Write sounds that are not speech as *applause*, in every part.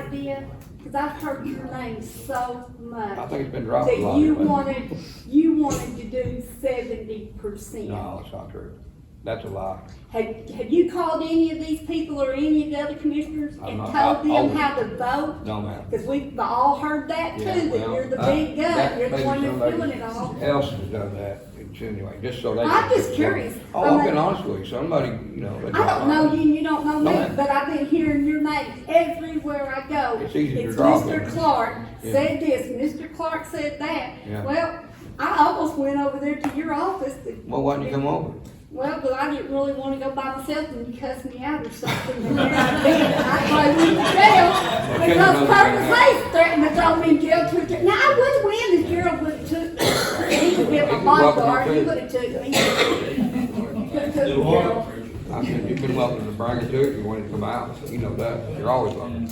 might be, because I've heard your name so I much, think it's been dropped that a lot. you but- wanted, you wanted to do seventy percent. No, that's not true. That's a lie. Have, have you called any of these people or any of the other commissioners I'm and not- told I- I them would- how to vote? No, ma'am. Because we've all heard that too, Yeah, that well, you're the I- big that gun, you're the maybe one that's somebody doing it all. Else has done that, insinuating, just so they. I'm can- just curious. Oh, I I've mean- been honest with you. Somebody, you know. they I dropped don't know it. you, and you don't know No, me, ma'am. but I've been hearing your name everywhere I go. It's easy to drop Mr. it. Clark Yeah. said this, Mr. Clark said that. Yeah. Well, I almost went over there to your office, to- Well, why didn't you come over? well, but I didn't really wanna go by myself and you cussed me out or something. *laughs* And here I been, I probably went to jail Okay, because another Curtis thing. Hayes threatened to throw me in jail two, times. now I would've win if Gerald would've took, he would've been my You're welcome bodyguard, he to. would've took me. Could've took Gerald. I said, you've been welcome to bring it to it. You wanted to come out. You know that. You're always welcome.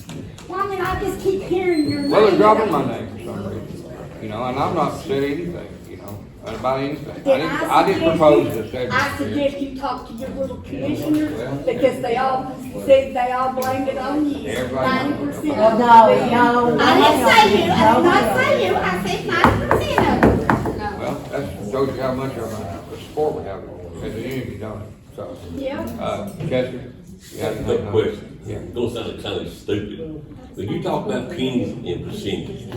Well, I mean, I just keep hearing your name. Well, they're dropping my name for some reason, you know, and I'm not said anything, you know, about anything. I Then didn't, I didn't suggest propose you- this every I year. suggest you talk to your little commissioners, Well- because they all, said they all blamed it on you. Everybody- Ninety percent. Well, of no, them. no, I didn't no, say you, I did not no. say you, I said ninety percent of them. No. Well, that shows you how much of a support we have as a unity, don't it? So, Yeah, uh, Chester? you have No anything? question. Uh-huh. Yeah. It's gonna sound kind of stupid. When you talk about pennies and percentages,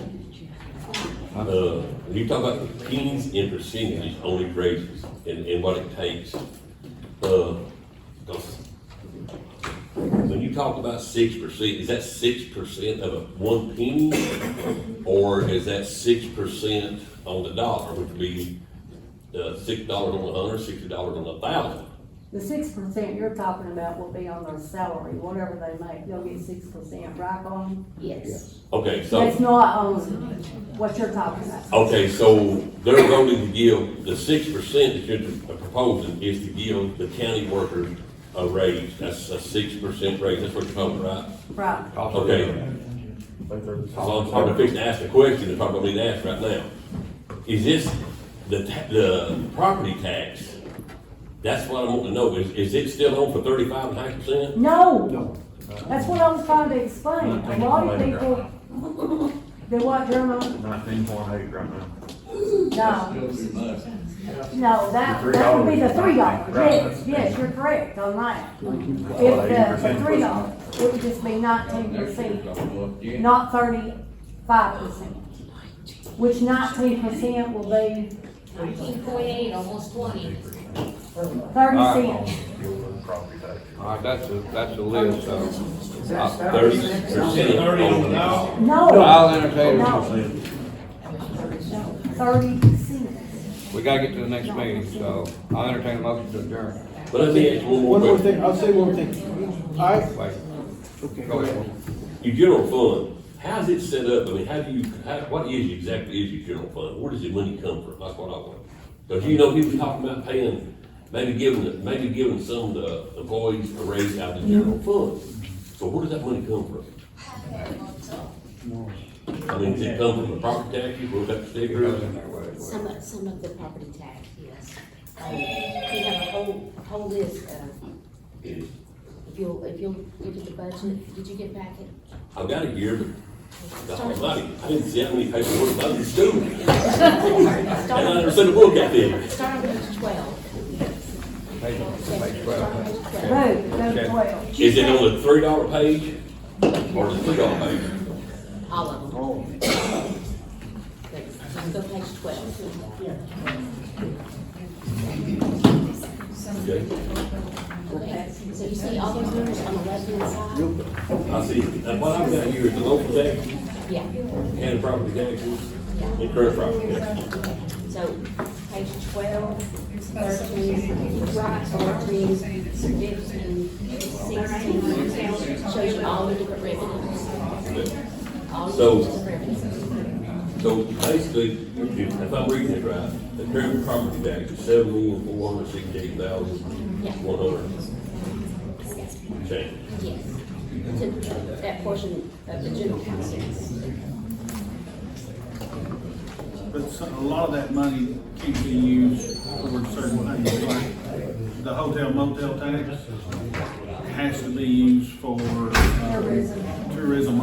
uh, when you talk about pennies and percentages only raises and, and what it takes, uh, 'cause when you talk about six percent, is that six percent of a one penny? Or is that six percent on the dollar, which would be, uh, six dollars on a hundred, sixty dollars on a thousand? The six percent you're talking about will be on their salary, whatever they make, they'll get six percent, right, on? Yes. Okay, so. That's not on what you're talking about. Okay, so they're going to give, the six percent that you're proposing is to give the county workers a raise. That's a six percent raise, that's what you're talking about, right? Right, Also- Okay. So I'm trying to fix, ask the question that's probably being asked right now. Is this, the, ta- the property tax, that's what I want to know, is, is it still on for thirty-five and a half percent? no, that's what I was trying to explain, a lot of people, they want German, Nineteen point eight right now. no, no, that, The that would be the three $3, dollars, right. yes, yes, you're correct on that. If the, the three dollars, it would just be nineteen percent. not thirty-five percent. Which nineteen percent will be Nineteen point eight, almost twenty. thirty All right. cents. Property tax. All right, that's a, that's a list, so. I- Thirty percent. No, I'll entertain, it. no. Thirty cents. we gotta get to the next meeting, so I'll entertain a motion to adjourn. But let me ask one more One more question. thing, I'll say one thing. I, Wait, okay, go ahead. Your general fund, how's it set up? I mean, how do you, how, what is exactly is your general fund? Where does the money come from? That's what I want. Cause you know, he was talking about paying, maybe giving, the- maybe giving some of the employees a raise out of the general fund. So where does that money come from? I mean, does it come from the property taxes, where that It goes sticker? in there, wait, wait. Some of, some of the property tax, yes. Um, We have a whole, whole list of, if you'll, if you'll look at the budget, did you get back it? I've got it here, but the whole money, I didn't see how many paperwork I was doing. And I never sent a book out there. Start on page twelve. Page- page Start on twelve. page twelve. Road, road twelve. Is it on the three dollar page or the three dollar page? All of them. Thanks. Just go page twelve. Okay, Okay, so you see all those numbers on the left-hand side? I see, now what I've got here is the local tax Yeah. and property taxes and current property taxes. So page twelve, thirteen, right, fourteen, fifteen, sixteen, shows you all the different revenues. All So- the different revenues. So basically, if if I'm reading it right, the current property tax is seven million four hundred sixty-eight thousand one hundred. Change. Yes, to that portion of the general council. But so- a lot of that money can be used towards certain things, like the hotel motel tax has to be used for uh, tourism